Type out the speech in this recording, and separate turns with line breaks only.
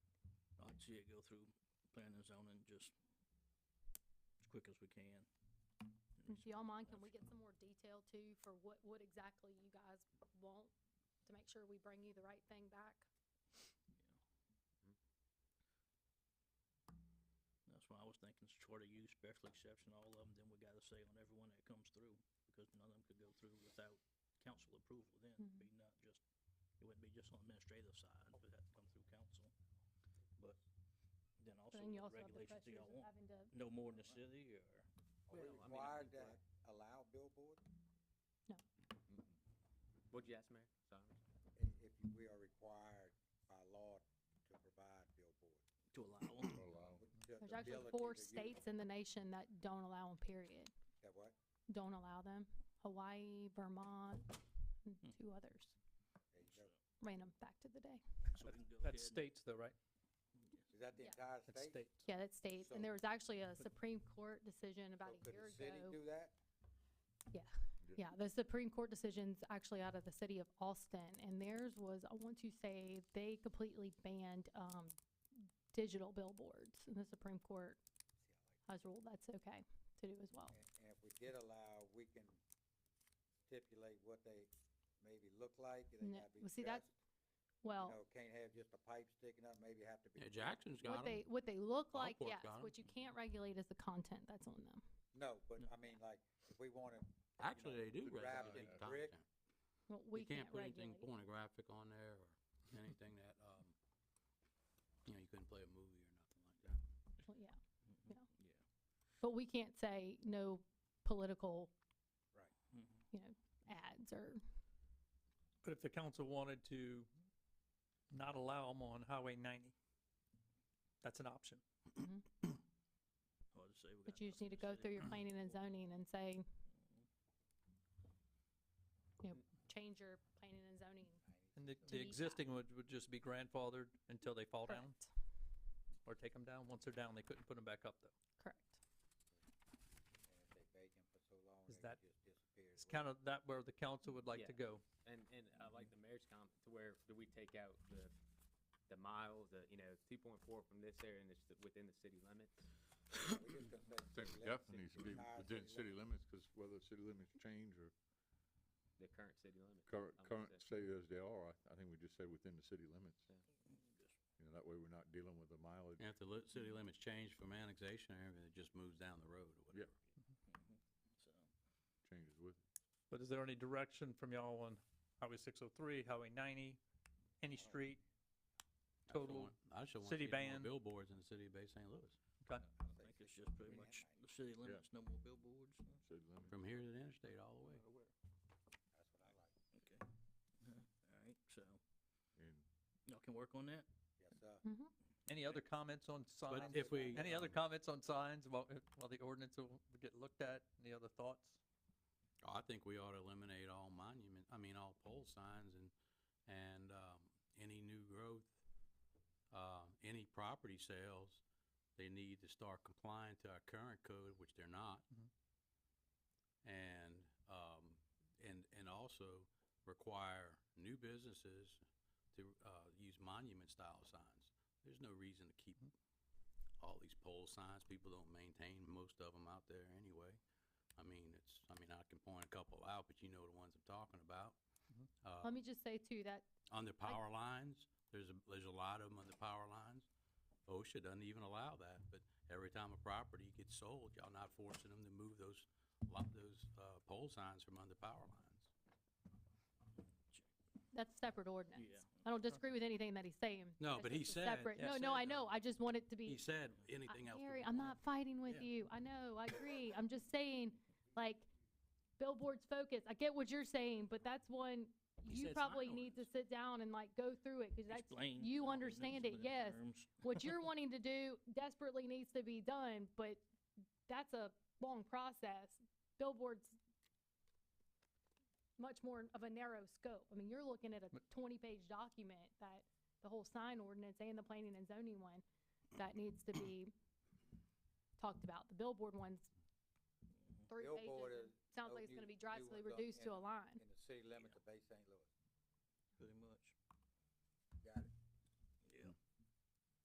see it go through planning and zoning just as quick as we can.
If y'all mind, can we get some more detail too for what, what exactly you guys want to make sure we bring you the right thing back?
That's why I was thinking it's short of use, special exception, all of them, then we gotta say on everyone that comes through, because none of them could go through without council approval then, it'd
Mm-hmm.
be not just, it wouldn't be just on administrative side, it would have to come through council. But then also
Then you
what
also have the
regulations do
pressures
y'all
of
want?
having to,
No more in the city or?
Are we
Well, I mean, I
required
think
to
we're-
allow billboard?
What'd you ask, Mayor? Sorry.
I- If you- we are required by law to provide billboard.
To allow them?
with the
there's actually
ability
four
to use-
states in the nation that don't allow them, period.
That what?
Don't allow them. Hawaii, Vermont, and
Hmm.
two others.
There you go.
Random fact of the day.
So we can go ahead
That's
and-
states though, right?
Is that the
Yeah.
entire
That's
state?
states.
Yeah, that's states. And
So-
there was actually a Supreme Court decision about
So
a
could
year
the city
ago. Oh.
do that?
Yeah, the Supreme Court decision's actually out of the city of Austin, and theirs was, I want to say, they completely banned, um, digital billboards, and the Supreme Court has ruled that's okay to do as well.
And, and if we did allow, we can stipulate what they maybe look like, they
No,
gotta be
well,
dressed.
see, that's-
You
Well,
know, can't have just a pipe sticking up, maybe have to be.
Yeah, Jackson's got
what
them.
they, what they look like,
Ballpark
yes,
got 'em.
what you can't regulate is the content that's on them.
No, but
No.
I mean, like, if we wanted.
Actually, they do
Could wrap
regulate
it in brick.
content.
Well,
You
we can't
can't put anything
regulate.
pornographic on there or anything that, um, you know, you couldn't play a movie or nothing like that.
Well, Yeah,
Mm-hmm.
Yeah.
but we can't say no political
Mhm.
ads or,
But if the council wanted to not allow them on Highway ninety, that's an option.
Hard to say. we
but
got
you just
nothing
need to
in the
go
city.
through your planning and zoning and say, you know, change your planning and zoning
And the,
To
the
be-
existing would, would just be grandfathered until they fall down
Correct.
or take them down. Once they're down, they couldn't put them back up though.
Correct.
And if they bake 'em for so long,
Is
they
that-
just disappear.
It's kind of that where the council would like
Yeah.
to go.
And, and I like the mayor's comment to where do we take out the, the miles, the, you know, two point four from this area and it's the- within the city limits?
think it definitely needs to be within city limits, because whether city limits change or
The current city limits.
current,
I would
current
say.
state as they are, I, I think we just say within the city limits.
Yeah.
You know, that way we're not dealing with the mileage.
And if the li- city limits change from annexation or everything, it just moves down the road or
Yeah.
whatever.
So,
changes with. it.
But is there any direction from y'all on Highway six oh three, Highway ninety,
Uh,
any street?
I just don't
Total
want- I just don't want
city
to see any more
ban.
Billboards in the city of Bay St. Louis,
I
I think it's just pretty much the city limits, no more billboards. huh?
City limits.
from here to the interstate all the way.
That's what I like.
Okay. Uh-huh. All right, so
And
y'all can work on that?
Yes, sir.
Any other comments on signs?
But if we.
Any other
um,
comments on signs while, while the ordinance will get looked at? Any other thoughts?
Oh, I think we ought to eliminate all monument, I mean, all pole signs and, and, um, any new growth, uh, any property sales, they need to start complying to our current code, which they're not.
Mhm.
And, um, and, and also require new businesses to, uh, use monument style signs. There's no reason to keep all these pole signs. People don't maintain most of them out there anyway. I mean, it's, I mean, I can point a couple out, but you know the ones I'm talking about.
Mhm.
Uh,
Let me just say too, that
on the power lines, there's a, there's a lot of them on the power lines. OSHA doesn't even allow that, but every time a property gets sold, y'all not forcing them to move those, lot, those, uh, pole signs from under power lines.
That's separate ordinance.
Yeah.
I don't disagree with anything that he's saying.
No,
That's
but he
just a
said-
separate-
yeah,
No, no,
said,
I know.
um,
I just want it to be.
He said
I-
anything else. we
Gary, I'm
want.
not fighting with
Yeah.
you. I know, I agree. I'm just saying, like, billboards focus. I get what you're saying, but that's one,
He
you
said sign
probably need to
ordinance.
sit down and like go through it, cause that's,
Explain
you
all the
understand it,
nuisance
yes.
terms.
what you're wanting to do desperately needs to be done, but that's a long process. Billboards much more of a narrow scope. I mean, you're looking at a
But-
twenty-page document that the whole sign ordinance and the planning and zoning one that needs to be talked about. The billboard one's three
Billboard
pages.
is
Sounds
no
like it's
new-
gonna be
new
drastically
ones up
reduced to a
in-
line.
In the city limits of Bay St. Louis.
Pretty much.